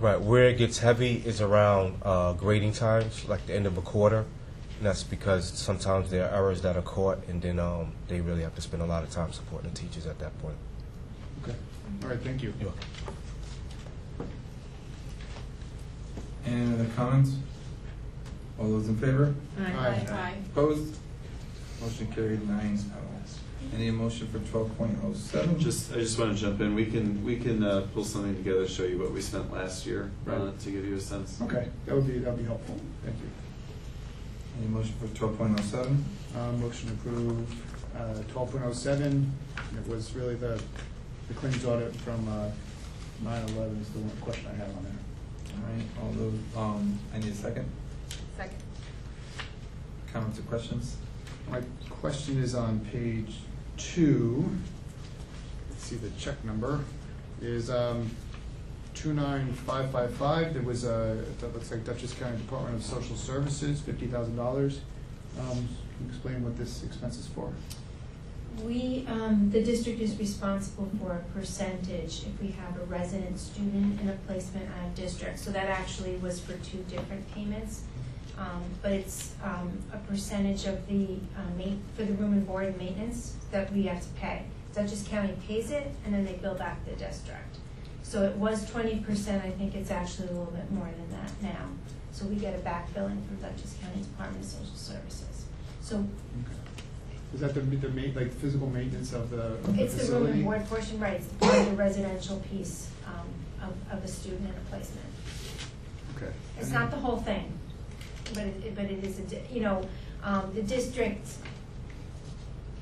Right, where it gets heavy is around uh, grading times, like the end of a quarter. And that's because sometimes there are errors that are caught, and then um, they really have to spend a lot of time supporting the teachers at that point. Okay, all right, thank you. You're welcome. Any other comments? All those in favor? Aye. Opposed? Motion carried nine oh. Any motion for twelve point oh seven? Just, I just want to jump in. We can, we can uh, pull something together, show you what we spent last year uh, Right. to give you a sense. Okay, that would be, that would be helpful, thank you. Any motion for twelve point oh seven? Uh, Motion to approve twelve point oh seven, it was really the, the claims audit from uh, nine eleven is the one question I had on there. All right, all those, um, I need a second. Second. Comments or questions? My question is on page two, let's see the check number, is um, two nine five five five, there was a, that looks like Dutchess County Department of Social Services, fifty thousand dollars. Um, Explain what this expense is for. We, um, the district is responsible for a percentage if we have a resident student in a placement out of district. So that actually was for two different payments. Um, but it's, um, a percentage of the, uh, ma- for the room and board and maintenance that we have to pay. Dutchess County pays it and then they bill back the district. So it was twenty percent, I think it's actually a little bit more than that now. So we get a back billing from Dutchess County Department of Social Services. So Is that the, the ma, like, physical maintenance of the of the It's the room facility? and board portion, right, it's part of the residential piece um, of, of a student and a placement. Okay. It's not the whole thing, but it, but it is, a di- you know, um, the district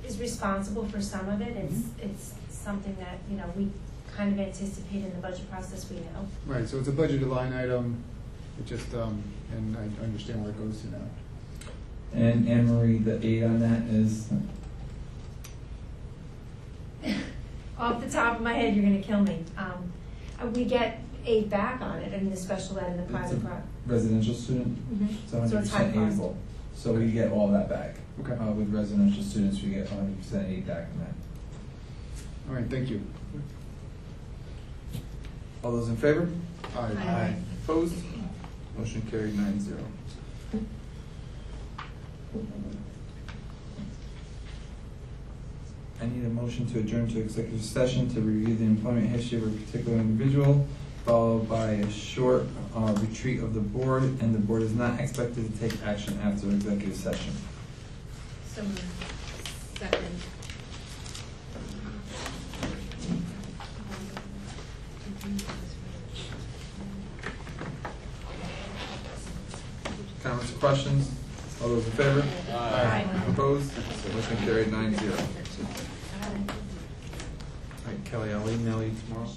is responsible for some of it. It's, Mm-hmm. it's something that, you know, we kind of anticipate in the budget process, we know. Right, so it's a budgeted line item, it just, um, and I understand where it goes to now. And Anne Marie, the date on that is? Off the top of my head, you're gonna kill me. Um, uh, We get aid back on it in the special ed and the It's a private pro. Residential student? Mhm. It's hundred So it's high percent cost. able. So we get all that back. Okay. Uh, with residential students, we get hundred percent aid back on that. All right, thank you. All those in favor? All right. Aye. Opposed? Motion carried nine zero. I need a motion to adjourn to executive session to review the employment history of a particular individual, followed by a short uh, retreat of the board, and the board is not expected to take action after executive session. So moved. Second. Comments, or questions? All those in favor? Aye. Opposed? Motion carried nine zero. All right, Kelly, I'll email you tomorrow.